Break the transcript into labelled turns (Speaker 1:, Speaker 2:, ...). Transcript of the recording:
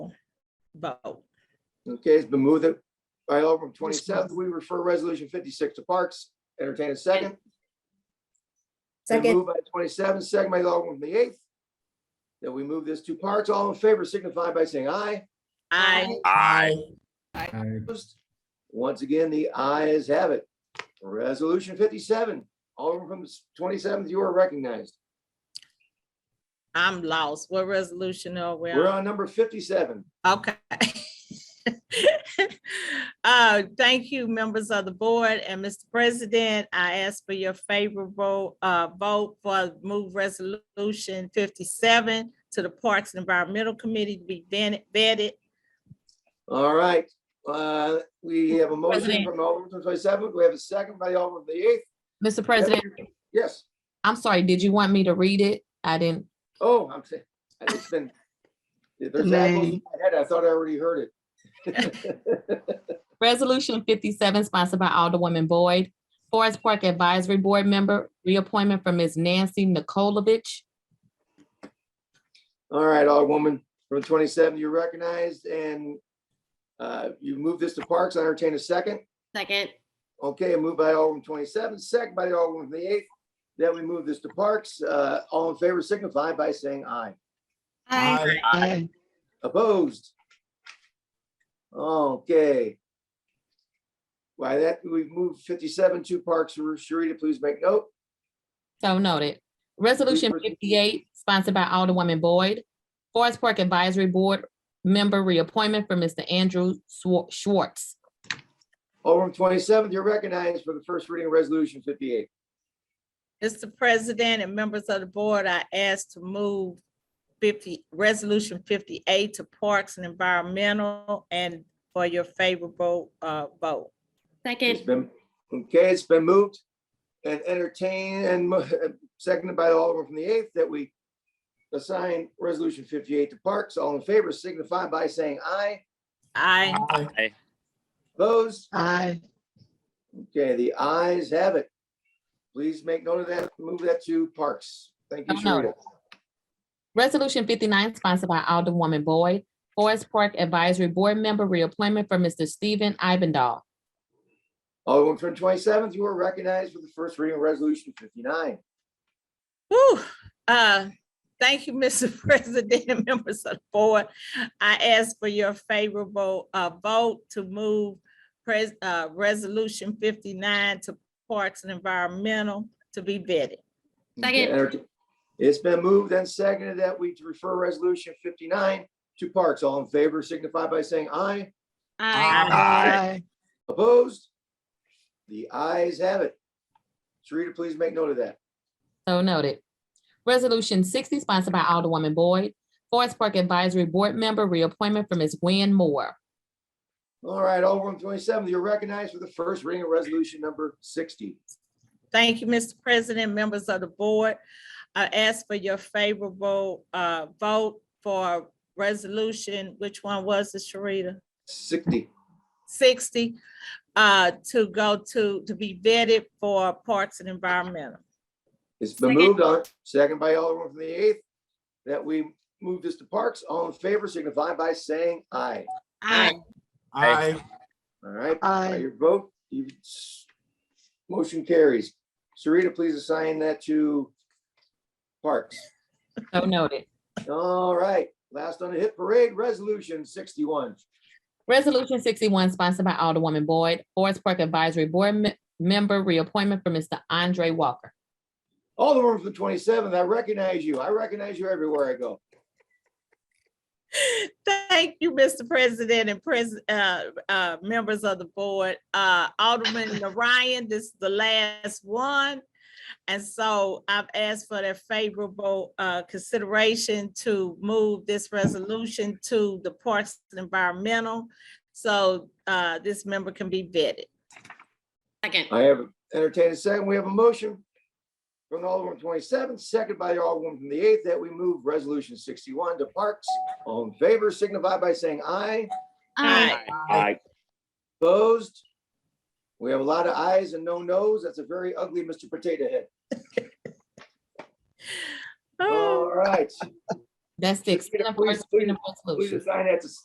Speaker 1: vote.
Speaker 2: Okay, it's been moved that by Alderman twenty-seventh, we refer resolution fifty-six to Parks. Entertain a second. Been
Speaker 3: Second,
Speaker 2: Moved by twenty-seven, second by Alderman from the eighth. That we move this to Parks. All in favor signify by saying aye.
Speaker 1: I,
Speaker 4: Aye.
Speaker 2: Opposed? Once again, the ayes have it. Resolution fifty-seven, Alderman from twenty-seventh, you are recognized.
Speaker 1: I'm lost. What resolution are we
Speaker 2: We're
Speaker 1: on?
Speaker 2: on number fifty-seven.
Speaker 1: Okay. Uh, thank you, members of the board and Mr. President, I ask for your favorable uh vote for move resolution fifty-seven to the Parks and Environmental Committee to be vetted- vetted.
Speaker 2: All right, uh, we have a motion
Speaker 5: President.
Speaker 2: from Alderman twenty-seventh. We have a second by Alderman from the eighth.
Speaker 5: Mr. President,
Speaker 2: Yes.
Speaker 5: I'm sorry, did you want me to read it? I didn't.
Speaker 2: Oh, I'm saying, it's been, if there's apples in my head, I thought I already heard it.
Speaker 5: Resolution fifty-seven sponsored by Alderwoman Boyd. Forest Park Advisory Board Member, reappointment for Ms. Nancy Nikolovich.
Speaker 2: All right, Alderwoman from twenty-seven, you're recognized and uh, you move this to Parks, I entertain a second.
Speaker 6: Second,
Speaker 2: Okay, moved by Alderman twenty-seven, second by Alderman from the eighth. Then we move this to Parks, uh, all in favor signify by saying aye.
Speaker 4: Aye.
Speaker 2: Opposed? Okay. Why that, we've moved fifty-seven to Parks, Sharita, please make note.
Speaker 5: So noted. Resolution
Speaker 2: Resolution-
Speaker 5: fifty-eight sponsored by Alderwoman Boyd. Forest Park Advisory Board Member, reappointment for Mr. Andrew Swar- Schwartz.
Speaker 2: Alderman twenty-seventh, you're recognized for the first reading of resolution fifty-eight.
Speaker 1: Mr. President and members of the board, I ask to move fifty, resolution fifty-eight to Parks and Environmental and for your favorable uh vote.
Speaker 2: It's
Speaker 6: second,
Speaker 2: been, okay, it's been moved and entertained and mo- seconded by Alderman from the eighth that we assign resolution fifty-eight to Parks. All in favor signify by saying aye.
Speaker 1: I,
Speaker 2: Opposed?
Speaker 4: Aye.
Speaker 2: Okay, the ayes have it. Please make note of that. Move that to Parks. Thank you,
Speaker 5: So noted.
Speaker 2: Sharita.
Speaker 5: Resolution fifty-nine sponsored by Alderwoman Boyd. Forest Park Advisory Board Member, reappointment for Mr. Stephen Ivindall.
Speaker 2: Alderman from twenty-seventh, you are recognized for the first reading of resolution fifty-nine.
Speaker 1: whew, uh, thank you, Mr. President and members of the board. I ask for your favorable uh vote to move pres- uh resolution fifty-nine to Parks and Environmental to be vetted.
Speaker 2: Okay,
Speaker 6: Second.
Speaker 2: entertain- It's been moved and seconded that we refer resolution fifty-nine to Parks. All in favor signify by saying aye.
Speaker 6: aye,
Speaker 4: Aye.
Speaker 2: Opposed? The ayes have it. Sharita, please make note of that.
Speaker 5: So noted. Resolution sixty sponsored by Alderwoman Boyd, Forest Park Advisory Board Member, reappointment for Ms. Gwen Moore.
Speaker 2: All right, Alderman twenty-seven, you're recognized for the first reading of resolution number sixty.
Speaker 1: Thank you, Mr. President, members of the board. I ask for your favorable uh, vote for resolution, which one was it, Sharita?
Speaker 2: Sixty.
Speaker 1: 60, uh, to go to, to be vetted for Parks and Environmental.
Speaker 2: It's been
Speaker 6: Second.
Speaker 2: moved on, second by Alderman from the eighth, that we move this to Parks. All in favor signify by saying aye.
Speaker 6: aye,
Speaker 4: Aye.
Speaker 2: All right, by
Speaker 4: Aye.
Speaker 2: your vote, you, motion carries. Sarita, please assign that to Parks.
Speaker 5: So noted.
Speaker 2: All right, last on the hit parade, resolution sixty-one.
Speaker 5: Resolution sixty-one sponsored by Alderwoman Boyd, Forest Park Advisory Board Me- Member, reappointment for Mr. Andre Walker.
Speaker 2: Alderman from the twenty-seventh, I recognize you. I recognize you everywhere I go.
Speaker 1: Thank you, Mr. President and pres, uh, uh, members of the board. Uh, Alderman Ryan, this is the last one. And so I've asked for their favorable, uh, consideration to move this resolution to the Parks and Environmental. So, uh, this member can be vetted.
Speaker 6: second,
Speaker 2: I have entertained a second. We have a motion from Alderman twenty-seven, second by Alderman from the eighth, that we move resolution sixty-one to Parks. All in favor signify by saying aye.
Speaker 6: aye,
Speaker 4: Aye.
Speaker 2: Opposed? We have a lot of ayes and no nos. That's a very ugly Mr. Potato Head.
Speaker 1: Oh.
Speaker 2: All right.
Speaker 5: That's the extent of
Speaker 1: Ah.
Speaker 2: Please,
Speaker 5: first reading of
Speaker 2: Please
Speaker 5: resolution.
Speaker 2: assign that to